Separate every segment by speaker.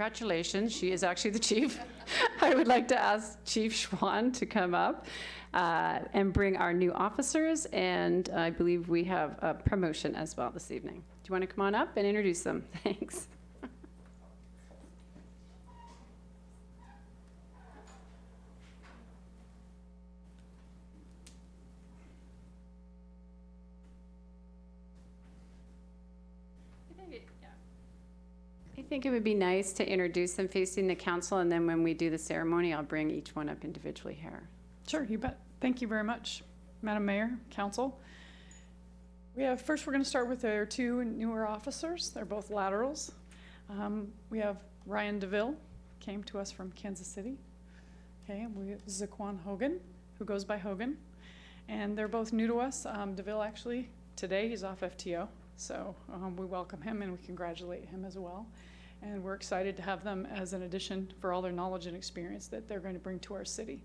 Speaker 1: Congratulations, she is actually the chief. I would like to ask Chief Schwan to come up uh, and bring our new officers, and I believe we have a promotion as well this evening. Do you want to come on up and introduce them? Thanks. I think it would be nice to introduce them facing the council, and then when we do the ceremony, I'll bring each one up individually here.
Speaker 2: Sure, you bet. Thank you very much, Madam Mayor, Council. We have, first, we're going to start with our two newer officers. They're both laterals. Um, We have Ryan DeVille, came to us from Kansas City. Okay, and we have Zaquan Hogan, who goes by Hogan. And they're both new to us. Um, DeVille, actually, today, he's off FTO. So um, we welcome him and we congratulate him as well. And we're excited to have them as an addition for all their knowledge and experience that they're going to bring to our city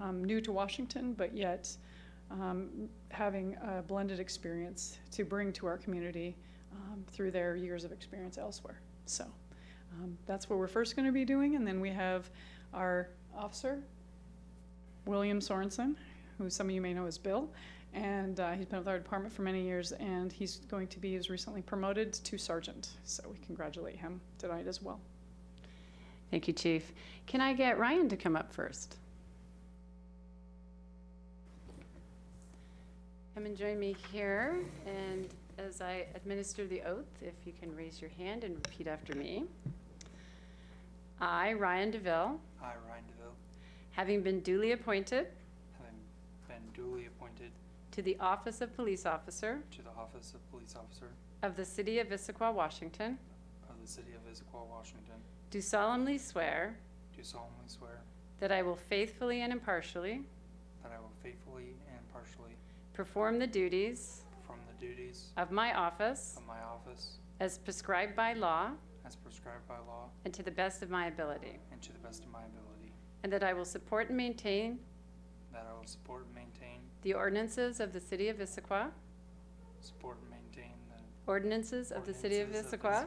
Speaker 2: um, new to Washington, but yet um, having a blended experience to bring to our community um, through their years of experience elsewhere. So um, that's what we're first going to be doing, and then we have our officer, William Sorensen, who some of you may know as Bill, and uh, he's been with our department for many years, and he's going to be, he was recently promoted to sergeant. So we congratulate him tonight as well.
Speaker 1: Thank you, Chief. Can I get Ryan to come up first? Come and join me here, and as I administer the oath, if you can raise your hand and repeat after me. I, Ryan DeVille,
Speaker 3: I, Ryan DeVille,
Speaker 1: having been duly appointed
Speaker 3: having been duly appointed
Speaker 1: to the Office of Police Officer
Speaker 3: to the office of police officer
Speaker 1: of the City of Issaquah, Washington,
Speaker 3: of the city of Issaquah, Washington,
Speaker 1: do solemnly swear
Speaker 3: do solemnly swear
Speaker 1: that I will faithfully and impartially
Speaker 3: that I will faithfully and impartially
Speaker 1: perform the duties
Speaker 3: perform the duties
Speaker 1: of my office
Speaker 3: of my office
Speaker 1: as prescribed by law
Speaker 3: as prescribed by law
Speaker 1: and to the best of my ability,
Speaker 3: and to the best of my ability,
Speaker 1: and that I will support and maintain
Speaker 3: that I will support and maintain,
Speaker 1: the ordinances of the City of Issaquah,
Speaker 3: support and maintain the
Speaker 1: ordinances of the City of
Speaker 3: ordinances
Speaker 1: Issaquah,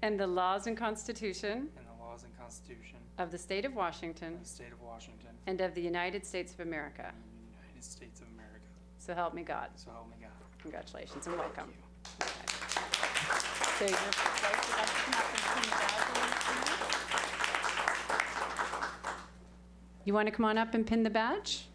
Speaker 1: and the laws and Constitution
Speaker 3: and the laws and constitution
Speaker 1: of the State of Washington
Speaker 3: of the state of Washington
Speaker 1: and of the United States of America.
Speaker 3: and the United States of America.
Speaker 1: So help me God.
Speaker 3: So help me God.
Speaker 1: Congratulations and welcome.
Speaker 3: you.
Speaker 1: There you go. You want to come on up and pin the badge?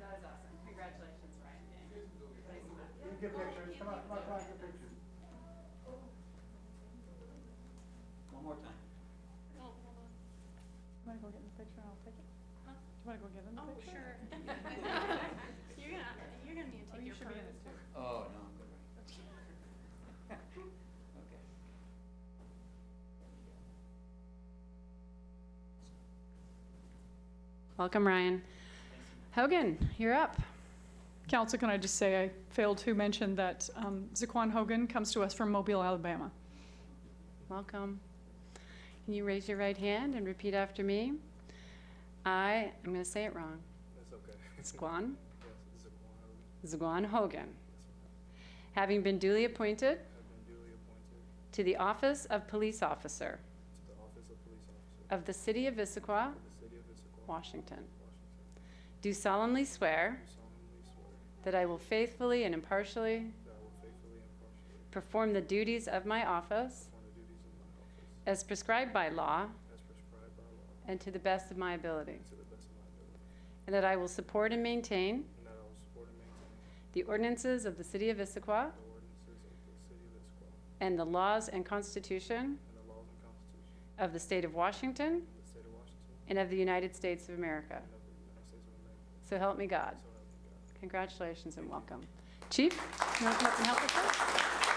Speaker 1: That is awesome. Congratulations, Ryan.
Speaker 2: You want to go get in the picture and I'll take it? You want to go get in the
Speaker 4: Oh,
Speaker 2: picture?
Speaker 4: sure. You're gonna, you're gonna need to
Speaker 2: Oh,
Speaker 4: take
Speaker 2: you
Speaker 4: your
Speaker 2: should be in
Speaker 4: photo.
Speaker 2: it too.
Speaker 5: Oh, no, I'm good right now. Okay.
Speaker 1: Welcome, Ryan. Hogan, you're up.
Speaker 2: Council, can I just say, I failed to mention that um, Zaquan Hogan comes to us from Mobile, Alabama.
Speaker 1: Welcome. Can you raise your right hand and repeat after me? I, I'm going to say it wrong.
Speaker 6: That's okay.
Speaker 1: Zguan,
Speaker 6: Yes, it's a one hour.
Speaker 1: Zguan Hogan. Having been duly appointed
Speaker 6: I've been duly appointed to
Speaker 1: to the office of police officer
Speaker 6: the office of police officer
Speaker 1: of the city of Issaquah,
Speaker 6: of the city of Issaquah,
Speaker 1: Washington.
Speaker 6: Washington.
Speaker 1: Do solemnly swear
Speaker 6: Do solemnly swear
Speaker 1: that I will faithfully and
Speaker 6: that
Speaker 1: impartially
Speaker 6: I will faithfully and impartially
Speaker 1: perform the duties of my office
Speaker 6: perform the duties of my office
Speaker 1: as prescribed by law
Speaker 6: as prescribed by law
Speaker 1: and to the best of my ability,
Speaker 6: and to the best of my ability,
Speaker 1: and that I will support and maintain
Speaker 6: and that I will support and maintain
Speaker 1: the ordinances of the city of
Speaker 6: the
Speaker 1: Issaquah
Speaker 6: ordinances of the city of Issaquah
Speaker 1: and the laws and constitution
Speaker 6: and the laws and constitution
Speaker 1: of the state of Washington
Speaker 6: of the state of Washington
Speaker 1: and of the United States of
Speaker 6: and
Speaker 1: America.
Speaker 6: of the United States of America,
Speaker 1: So help me
Speaker 6: so help
Speaker 1: God.
Speaker 6: me God.
Speaker 1: Congratulations and welcome. Chief, you want to come up and help us out?